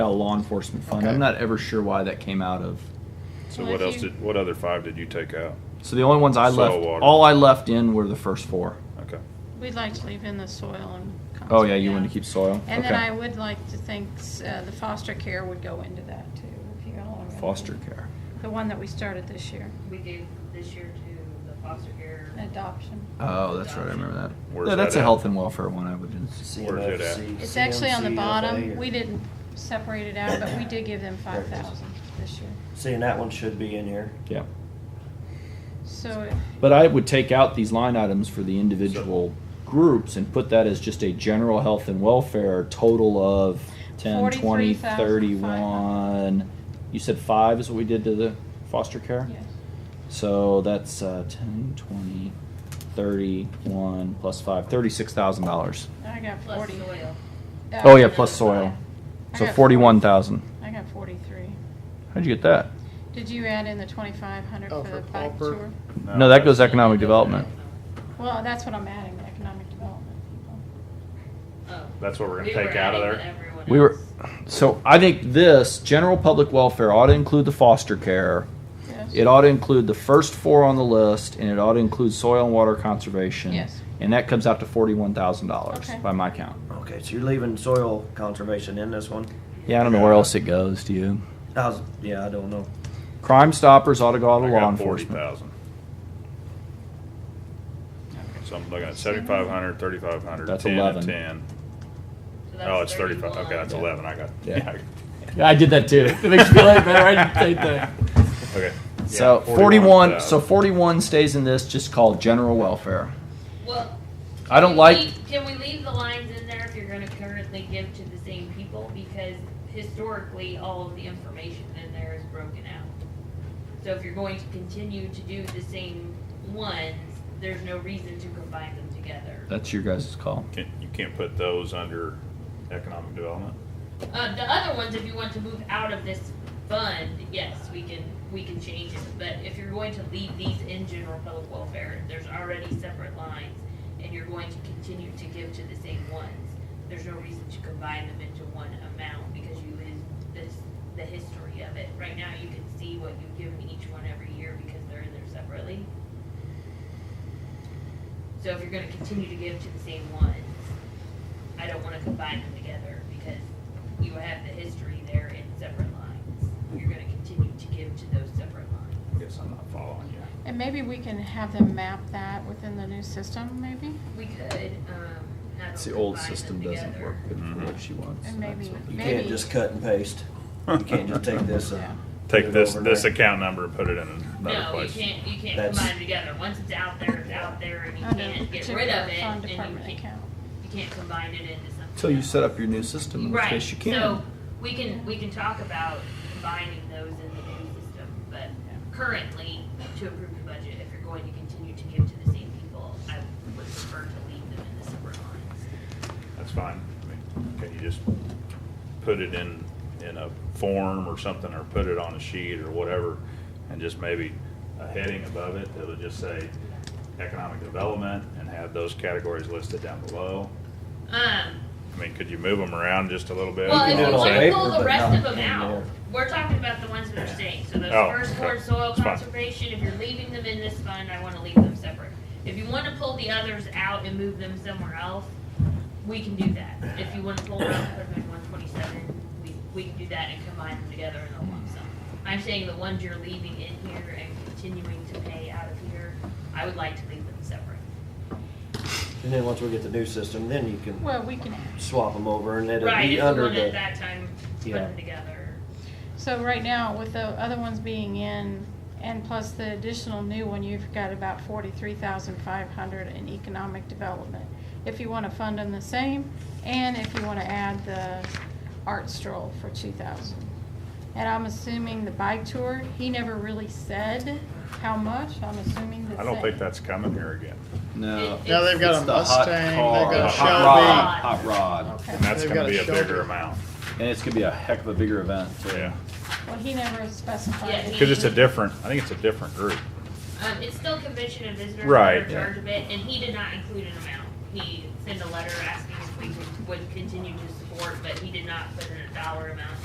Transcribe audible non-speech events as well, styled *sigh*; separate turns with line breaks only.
a law enforcement fund.
Okay.
I'm not ever sure why that came out of.
So
Well,
what
if
else
you-
did, what other five did you take out?
So the only ones I
Soil
left,
water.
all I left in were the first four.
Okay.
We'd like to leave in the soil and.
Oh yeah, you wanted to keep soil.
And
okay.
then I would like to think uh, the foster care would go into that too, if you all are.
foster care.
The one that we started this year,
We gave this year to the foster care.
adoption.
Oh, that's right. I remember that.
Where's
Yeah, that's
that
a
at?
health and welfare one. I would.
Where's it at?
CMFC,
It's actually on the
CMCFA,
bottom. We
or-
didn't separate it out, but we did give them
There it
five
is.
thousand this year.
See, and that one should be in here.
Yeah.
So
But I would take out these line items for the individual groups and put that as just a general health and welfare total of 10, 20, 31. You said five is what we did to the foster care?
yes,
So that's uh, 10, 20, 31 plus five, $36,000.
I got
Plus
forty.
soil.
Uh,
Oh, yeah, plus soil.
I
So
got
41,000.
I got forty-three.
How'd you get that?
Did you add in the twenty-five hundred
Oh,
for the
for
pipe
pauper.
sewer?
No, that goes economic development.
Well, that's what I'm adding, the economic development people.
Oh.
That's what we're gonna
We
take
were
out of
adding
there?
everyone
We were,
else.
so I think this general public welfare ought to include the foster care.
Yes.
It ought to include the first four on the list, and it ought to include soil and water conservation.
Yes.
And that comes out to forty-one thousand dollars
Okay.
by my count.
Okay, so you're leaving soil conservation in this one?
Yeah, I don't know where else it goes. Do you?
I was, yeah, I don't know.
Crime Stoppers ought to go out
I
of law
got forty
enforcement.
thousand. So I'm looking at seventy-five hundred, thirty-five hundred,
That's
ten,
11.
and ten.
So that's
Oh, it's thirty-five, okay, that's
Yeah.
eleven, I got,
Yeah.
*laughs* yeah.
Yeah, I did that too. *laughs* It makes me feel like better. I did the same thing.
Okay. Yeah,
So forty-one. So
41,000.
forty-one stays in this, just called general welfare.
Well.
I don't
can
like.
we- Can we leave the lines in there if you're gonna currently give to the same people? Because historically, all of the information in there is broken out. So if you're going to continue to do the same ones, there's no reason to combine them together.
That's your guys' call.
Can't- You can't put those under economic development?
Uh, the other ones, if you want to move out of this fund, yes, we can, we can change it, but if you're going to leave these in general public welfare, there's already separate lines, and you're going to continue to give to the same ones, there's no reason to combine them into one amount, because you is, this, the history of it, right now, you can see what you've given each one every year, because they're in there separately. So if you're gonna continue to give to the same ones, I don't wanna combine them together, because you have the history there in separate lines. You're gonna continue to give to those separate lines.
I guess I'm not following you.
And maybe we can have them map that within the new system, maybe?
We could, um, have
It's
them
the old
combine them
system doesn't
together.
work good for
Mhm.
what she wants.
And
That's
maybe-
what-
You
Maybe.
can't just cut and paste. You can't just
*laughs*
take this uh,
Yeah.
and.
Take
put it
this,
over
this
there.
account number and put it in another
No, you
place.
can't, you can't
That's-
combine them together. Once it's out there, it's out there and you
Under the
can't get
particular
rid of it
Fund
and you
department
can't,
account.
you can't combine it into something.
Until you
else.
set up your new system, in which
Right,
case you can.
so we can, we can talk about combining those in the new system, but currently, to approve the budget, if you're going to continue to give to the same people, I would prefer to leave them in the separate lines.
That's fine. I mean, Can you just put it in, in a form or something, or put it on a sheet or whatever? And just maybe a heading above it that would just say economic development and have those categories listed down below?
Um,
I mean, could you move them around just a little bit?
well,
can
if
do
you
it on
want to
paper,
pull the
but
rest
not
of them
in
out,
there.
we're talking about the ones that are staying, so those
Oh,
first
okay.
four soil
It's fine.
conservation, if you're leaving them in this fund, I wanna leave them separate. If you wanna pull the others out and move them somewhere else, we can do that. If you wanna pull them out, put them in one twenty-seven, we, we can do that and combine them together in a lump sum. I'm saying the ones you're leaving in here and continuing to pay out of here, I would like to leave them separate.
And then once we get the new system, then you can
Well, we can,
swap them over and it'll
Right, if
be
you
under
wanted at
the.
that time, to put
Yeah.
them together.
so right now, with the other ones being in, and plus the additional new one, you've got about forty-three thousand five hundred in economic development. If you wanna fund them the same, and if you wanna add the art stroll for two thousand. And I'm assuming the bike tour, he never really said how much, I'm assuming the
I don't
same.
think that's coming here again.
No.
Now they've
It's
got a
the hot
Mustang,
car,
they've
the
got a
hot
Shelby.
Shelby.
Hot rod.
Okay.
And that's
They've
gonna
got a
be a bigger
shoulder.
amount,
And it's gonna be a heck of a bigger event, too.
yeah.
Well, he never
Yeah,
specified.
he-
Cause it's a different, I think it's a different group.
Um, it's still convention and visitors
Right.
are in charge of it, and he did not include an amount. He sent a letter asking if we would- would continue to support, but he did not put in a dollar amount